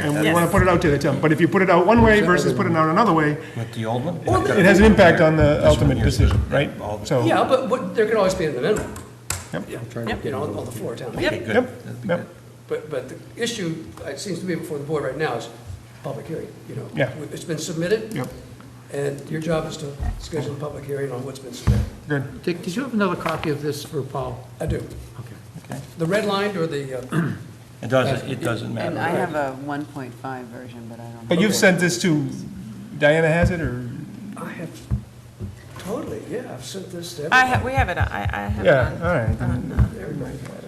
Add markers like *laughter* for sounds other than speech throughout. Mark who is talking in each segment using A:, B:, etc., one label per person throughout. A: and we
B: that's-
A: want to put it out to the town. But if you put it out one way versus put it out another way,
B: With the old one?
A: it has an impact on the ultimate decision, right?
B: All the-
A: So,
C: Yeah, but, but there can always be an amendment.
A: Yep.
C: Yeah, you know, on on the floor down.
B: Okay, good.
A: Yep,
B: That'd be
A: yep.
B: good.
C: But, but the issue, it seems to be before the board right now, is public hearing, you know?
A: Yeah.
C: It's been submitted.
A: Yep.
C: And your job is to schedule a public hearing on what's been submitted.
A: good.
D: Dick, did you have another copy of this for Paul?
C: I do.
D: Okay.
C: The red line or the, uh, *clears throat*
B: It doesn't, it doesn't
E: And I
B: matter.
E: have a 1.5 version, but I don't.
A: But you've sent this to, Diana has it, or?
C: I have, totally, yeah, I've sent this to
F: I,
C: everybody.
F: ha- we have it, I, I have it
A: Yeah,
F: on-
A: all right,
F: on,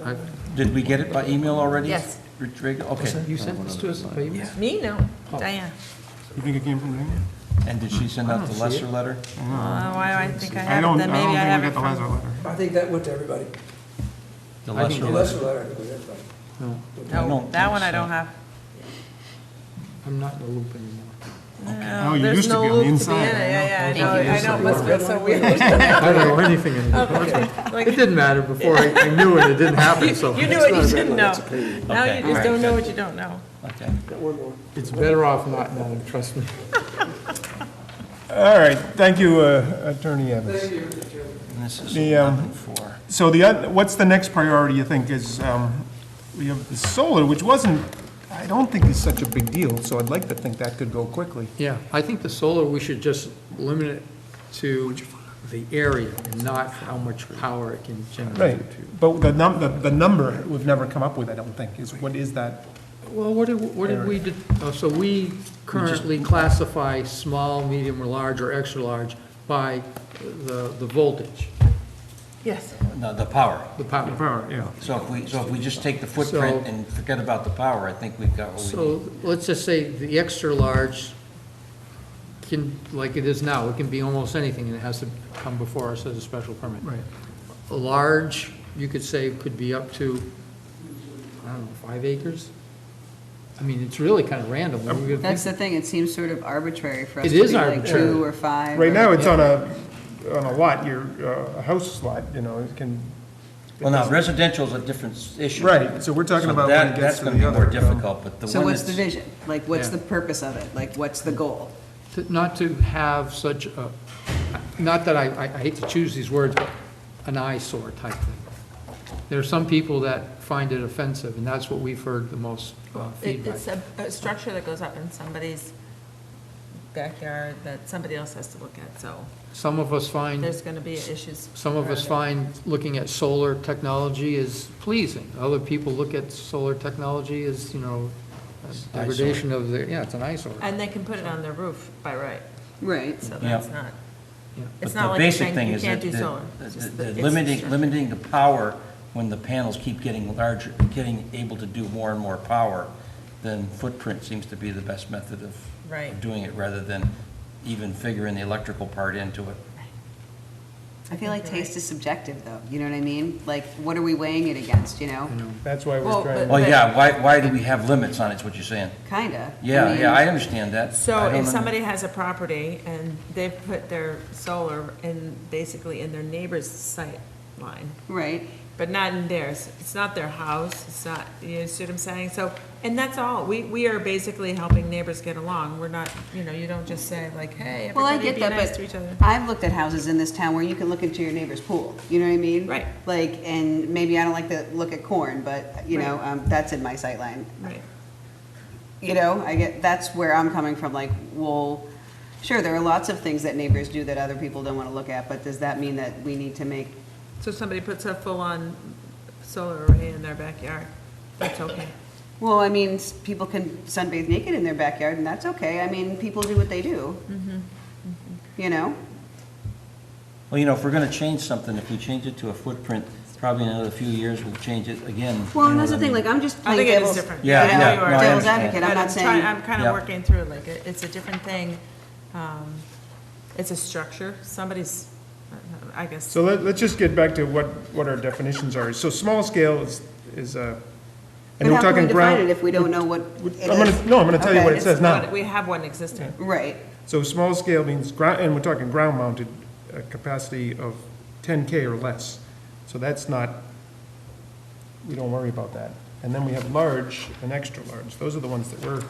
F: uh,
B: Did we get it by email already?
F: Yes.
B: Rodrigo? okay.
D: You sent this to us by email?
F: Me, no, Diane.
A: You think it came from Diana?
B: And did she send out the lesser letter?
F: Uh, Why do I think I
A: I
F: have it,
A: don't, I
F: then maybe I
A: don't
F: have it
A: think we got the
F: from.
A: Lazar letter.
C: I think that went to everybody.
B: The
D: I
B: lesser
D: think
C: The
B: letter?
C: lesser letter, I think, was everybody.
B: I
F: No,
B: don't
F: that
B: think
F: one I
B: so.
F: don't have.
D: I'm not in the loop anymore.
A: Oh, you
F: there's
A: used to
F: no
A: be on the
F: loop to be
A: inside,
F: in
A: I
F: it. Yeah, yeah, I know, I know, it must have been so weird.
D: I don't know anything anymore. It didn't matter before, I I knew it, it didn't happen, so
F: *laughs* You knew what you didn't know. Now
B: Okay,
F: you
B: all
F: just
B: right,
F: don't know
B: good.
F: what you don't know.
B: Okay.
D: it's better off not knowing, trust me.
A: All right, thank you, uh, Attorney Evans.
B: And this is
A: The, um,
B: eleven four.
A: So the, oth- what's the next priority, you think, is, um, we have the solar, which wasn't, I don't think is such a big deal, so I'd like to think that could go quickly.
D: Yeah, I think the solar, we should just limit it to the area and not how much power it can
A: Right,
D: generate.
A: but the num, the, the number, we've never come up with, I don't think, is, what is that?
D: Well, what did, what did we, do- oh, so we currently classify small, medium, or large, or extra-large by the, the voltage,
F: Yes.
B: No, the power.
D: the power.
A: Power, yeah.
B: So if we, so if we just take the footprint
D: So-
B: and forget about the power, I think we've got what we need.
D: So let's just say the extra large can, like it is now, it can be almost anything and it has to come before us as a special permit.
A: Right.
D: A large, you could say, could be up to, I don't know, five acres? I mean, it's really kind of random. We're gonna
E: That's
D: think-
E: the thing, it seems sort of arbitrary for us
D: It
E: to
D: is
E: be like
D: arbitrary.
E: two or five.
A: Right
E: or-
A: now, it's on a, on a lot, your, uh, a house lot, you know, it can,
B: Well, now residential is a different s- issue.
A: Right, so we're talking
B: So
A: about when
B: that-
A: it gets
B: that's
A: to
B: gonna
A: the
B: be more
A: other, um,
B: difficult, but the one
E: So what's the
B: that's-
E: vision? Like, what's
D: Yeah.
E: the purpose of it? Like, what's the goal?
D: to- Not to have such a, not that I, I I hate to choose these words, but an eyesore type thing. There are some people that find it offensive and that's what we've heard the most uh,
F: It,
D: feedback.
F: it's a, a structure that goes up in somebody's backyard that somebody else has to look at, so
D: Some of us find
F: there's gonna be issues.
D: Some of us
F: around
D: find looking at solar technology is pleasing. Other people look at solar technology as, you know, a
B: eyesore.
D: degradation of the, yeah, it's an eyesore.
F: it. And they can put it on their roof by right,
E: Right.
F: so
B: Yeah.
F: that's not,
D: Yeah.
F: it's
B: But
F: not
B: the
F: like you're
B: basic thing
F: saying you
B: is
F: can't
B: that
F: do
B: the-
F: solar.
B: the-
F: It's just
B: the-
F: that
B: the
F: it's
B: Limiting,
F: structure.
B: limiting the power when the panels keep getting larger, getting able to do more and more power, then footprint seems to be the best method of
F: Right.
B: of doing it, rather than even figuring the electrical part into it.
E: I feel like taste is subjective, though, you know what I mean? Like, what are we weighing it against, you know?
A: that's why we're
F: Well,
A: trying.
F: but-
B: Well, yeah, why, why do we have limits on it, is what you're saying?
E: Kinda. I
B: Yeah,
E: mean,
B: yeah, I understand that. I
F: So
B: don't
F: if
B: under-
F: somebody has a property and they've put their solar in, basically in their neighbor's sight line,
E: Right,
F: but not in theirs, it's not their house, it's not, you see what I'm saying? So, and that's all, we, we are basically helping neighbors get along, we're not, you know, you don't just say like, hey,
E: well, I
F: everybody
E: get
F: be
E: that,
F: nice to each other.
E: but I've looked at houses in this town where you can look into your neighbor's pool, you know what I mean?
F: Right.
E: Like, and maybe I don't like to look at corn, but, you know, um, that's in my sight line.
F: Right,
E: You know, I get, that's where I'm coming from, like, well, sure, there are lots of things that neighbors do that other people don't want to look at, but does that mean that we need to make,
F: so if somebody puts a full-on solar array in their backyard, that's okay.
E: well, I mean, s- people can sunbathe naked in their backyard, and that's okay, I mean, people do what they do. You know?
B: Well, you know, if we're gonna change something, if we change it to a footprint, probably in another few years, we'll change it again.
E: Well,
B: you
E: and
B: know
E: that's the
B: what I
E: thing,
B: mean?
E: like, I'm just
F: I
E: playing
F: think it is
E: devil's.
F: different.
B: Yeah,
F: I know
B: yeah,
F: you are.
B: no, I
E: Devil's
B: understand.
E: advocate, I'm
F: But
E: not
F: try-
E: saying.
F: I'm kind
B: Yeah.
F: of working through, like, it- it's a different thing, um, it's a structure, somebody's, I guess,
A: So let, let's just get back to what, what our definitions are. So small scale is, is, uh, and
E: But
A: we're
E: how can
A: talking
E: we define it
A: ground.
E: if we don't know what
A: I'm
E: it
A: gonna,
E: is?
A: no, I'm gonna tell you what
E: Okay.
A: it says now.
F: we have one existing.
E: Right,
A: So small scale means ground, and we're talking ground mounted, uh capacity of ten K or less. So that's not, we don't worry about that. And then we have large and extra large. Those are the ones that we're